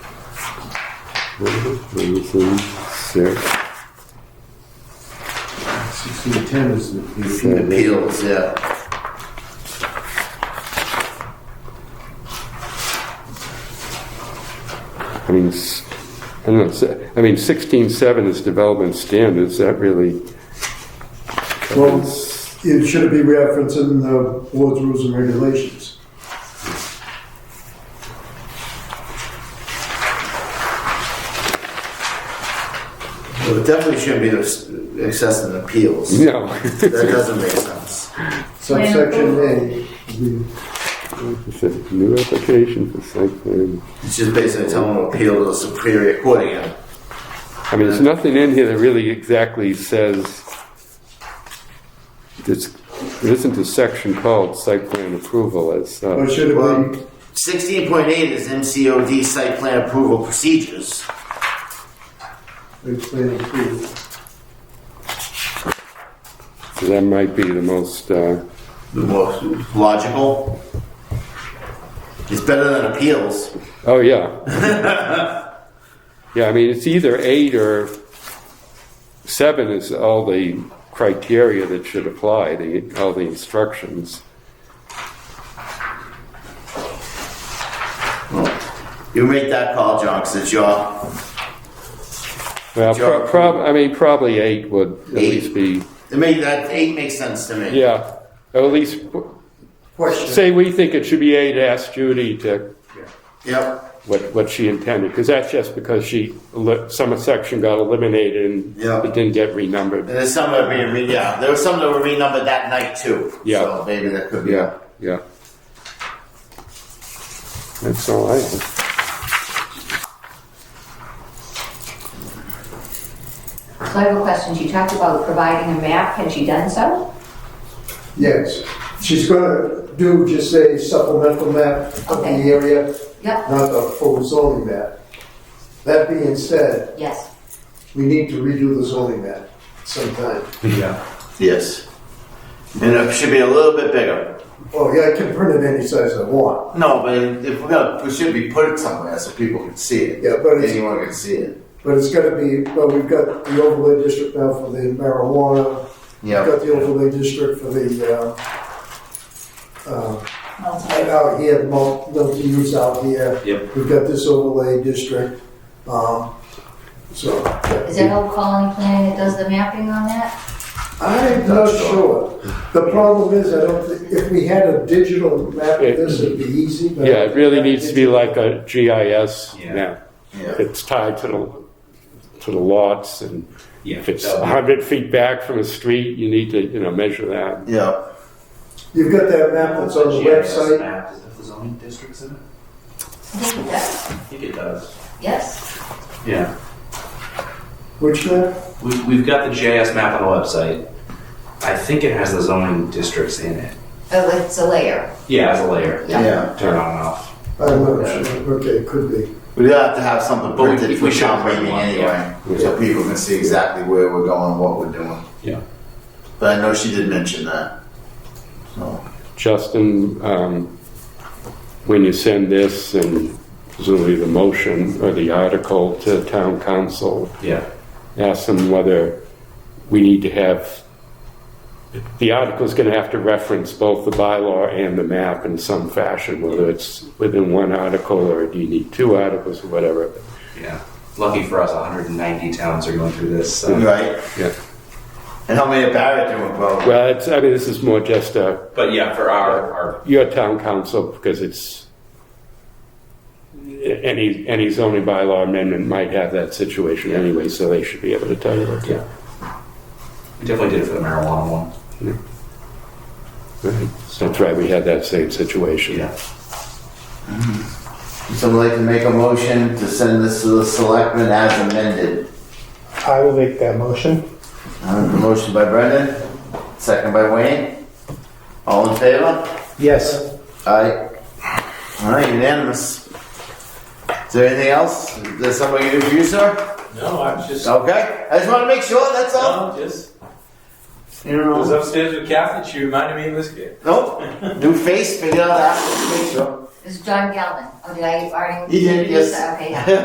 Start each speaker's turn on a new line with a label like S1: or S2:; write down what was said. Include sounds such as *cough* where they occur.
S1: six,
S2: Sixteen ten is the
S1: Seven.
S3: Appeals, yeah.
S1: I mean, s- I don't know, se- I mean, sixteen seven is development standards, that really.
S4: Well, it should be referenced in the board's rules and regulations.
S3: Well, it definitely shouldn't be ex- excess in
S1: *laughs*
S3: appeals.
S1: No.
S3: That doesn't make sense.
S4: Subsection A, the-
S1: It said, New application for site plan.
S3: It's just basically telling them to appeal to the Superior Court again.
S1: I mean, there's nothing in here that really exactly says, it's, there isn't a section called site plan approval as
S4: or
S1: such.
S4: should it
S3: Well,
S4: be,
S3: sixteen point eight is MCOD site plan approval procedures.
S4: explain it to
S1: So that might be the most, uh,
S3: The most logical. It's better than appeals.
S1: oh, yeah. *laughs* Yeah, I mean, it's either eight or seven is all the criteria that should apply, the, all the instructions.
S3: You make that call, John, 'cause it's your
S1: Well, pro- prob, I mean, probably eight would at least be,
S3: It make that eight makes sense to me.
S1: yeah, at least
S4: Question.
S1: Say we think it should be eight, ask Judy to,
S3: Yep.
S1: what, what she intended, because that's just because she, eli- some section got eliminated and
S3: Yeah.
S1: it didn't get renumbered.
S3: And there's some that were being re- yeah. There was some that were renumbered that night too.
S1: Yeah.
S3: So maybe that could be.
S1: Yeah, yeah. That's all I have.
S5: So I have a question. She talked about providing a map. Has she done so?
S4: Yes, she's gonna do just a supplemental map of the
S5: Okay.
S4: area,
S5: Yep.
S4: not a full zoning map. That being said,
S5: Yes.
S4: we need to redo the zoning map sometime.
S3: Yes. And it should be a little bit bigger.
S4: Oh, yeah, I can print it any size I want.
S3: No, but if we're gonna, we should be put it somewhere so people can see it.
S4: Yeah, but it's-
S3: anyone can see it.
S4: But it's gotta be, well, we've got the overlay district now for the marijuana,
S3: Yeah.
S4: Got the overlay district for the, uh, uh, out here, mul- multi-use out here.
S3: Yep.
S4: We've got this overlay district, um, so.
S5: Is it Old Colony Planning that does the mapping on that?
S4: I'm not sure. The problem is, I don't, thi- if we had a digital map of this, it'd be easy, but.
S1: Yeah, it really needs to be like a GIS
S6: Yeah.
S1: map.
S3: Yeah.
S1: It's tied to the, to the lots and
S6: Yeah,
S1: if it's
S6: that would
S1: a
S6: be-
S1: hundred feet back from a street, you need to, you know, measure that.
S3: Yeah.
S4: You've got that map that's on the
S6: GIS
S4: website,
S6: map, Is that the zoning districts in it?
S5: I think it does.
S6: I think it does.
S5: Yes.
S6: Yeah.
S4: which map?
S6: We've, we've got the GIS map on the website. I think it has the zoning districts in it.
S5: Oh, it's a layer.
S6: Yeah, as a layer.
S5: Yeah.
S6: Turn on and off.
S4: I'm not sure, okay, could be.
S3: We'd have to have something
S6: But we-
S3: printed
S6: we
S3: for
S6: should
S3: town
S6: print
S3: meeting
S6: one,
S3: anyway, so people can see exactly where we're going, what we're doing.
S6: Yeah.
S3: But I know she did mention that. So,
S1: Justin, um, when you send this and presumably the motion or the article to town council,
S6: Yeah.
S1: ask them whether we need to have, the article's gonna have to reference both the bylaw and the map in some fashion, whether it's within one article or do you need two articles or whatever.
S6: Yeah. Lucky for us, 190 towns are going through this. So.
S3: right?
S1: Yeah.
S3: And how many of Barrett doing, bro?
S1: Well, it's, I mean, this is more just a,
S6: But yeah, for our, our
S1: your town council, because it's, any, any zoning bylaw amendment might have that situation anyway, so they should be able to tell you what to.
S6: yeah. We definitely did it for the marijuana one.
S1: Right. That's right, we had that same situation.
S6: Yeah.
S3: Would Someone like to make a motion to send this to the selectmen as amended.
S7: I will make that motion.
S3: Uh, Motion by Brendan, second by Wayne. All in favor?
S7: Yes.
S3: Aye. All right, unanimous. Is there anything else? Is there something you can do for you, sir?
S8: No, I'm just,
S3: Okay, I just want to make sure, that's all.
S8: no, just,
S3: You
S8: I was
S3: know,
S8: upstairs with Kathy, she reminded me of this kid.
S3: nope, new face, figure out that, make sure.
S5: It's John Galvin. Oh, did I already?
S3: You did, yes. *laughs*
S5: Okay, yeah.